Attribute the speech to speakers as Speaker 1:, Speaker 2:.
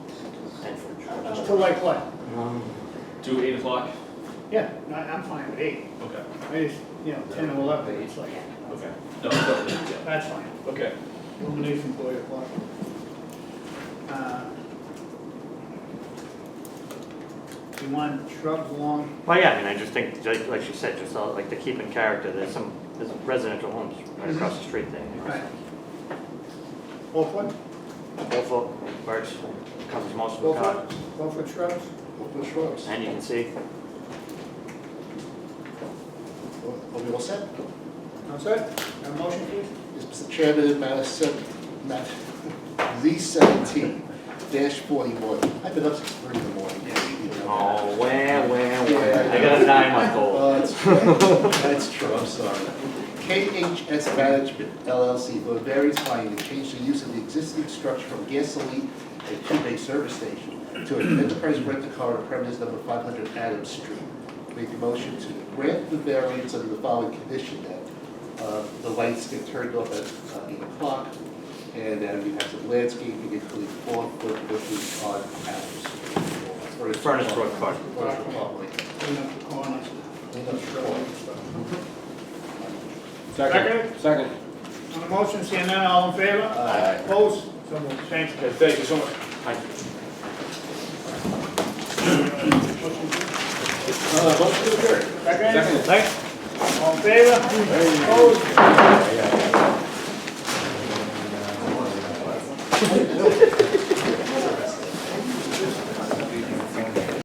Speaker 1: For like what?
Speaker 2: Do eight o'clock?
Speaker 1: Yeah, no, I'm fine with eight.
Speaker 2: Okay,
Speaker 1: I just, you know, ten and eleven, it's like,
Speaker 2: okay. No, totally, yeah.
Speaker 1: that's fine.
Speaker 2: Okay,
Speaker 1: Illumination for eight o'clock. Uh, Do you want shrubs along,
Speaker 3: Well, yeah, I mean, I just think, like like you said, just all- like to keep in character, there's some, there's residential homes right across the street there. you know,
Speaker 1: right? Four foot,
Speaker 3: Four foot, where it's- covers most of the
Speaker 1: four
Speaker 3: car,
Speaker 1: foot, four foot shrubs?
Speaker 4: Open shrubs.
Speaker 3: and you can see,
Speaker 4: Are we all set?
Speaker 1: I'm sorry, a motion please?
Speaker 4: Yes, Mr. Chairman, matter seven, matter Z seventeen dash forty-one. I've been up since three in the morning. you know.
Speaker 3: oh, where, where,
Speaker 4: Yeah.
Speaker 3: where, I got a nine-month old.
Speaker 4: Oh, that's right. That's true, I'm sorry. KHS Management LLC for a variance finding to change the use of the existing structure from gasoline and two-bay service station to an enterprise rent-a-car on premise number 500 Adams Street. Make a motion to grant the variance under the following condition that uh, the lights get turned off at uh, 8 o'clock and then we have some landscaping including four-foot bushes on Adams. Street.
Speaker 3: Furnace Brook Park.
Speaker 4: Furnace Brook Park.
Speaker 1: Clean up the corners.
Speaker 2: Second. Second.
Speaker 1: On the motion, seeing none, all in favor?
Speaker 4: Aye.
Speaker 1: Opposed? So moved. Thanks,
Speaker 2: Okay, thank you so much.
Speaker 3: I-
Speaker 4: Uh, motion to adjourn.
Speaker 1: Second? All in favor? Opposed?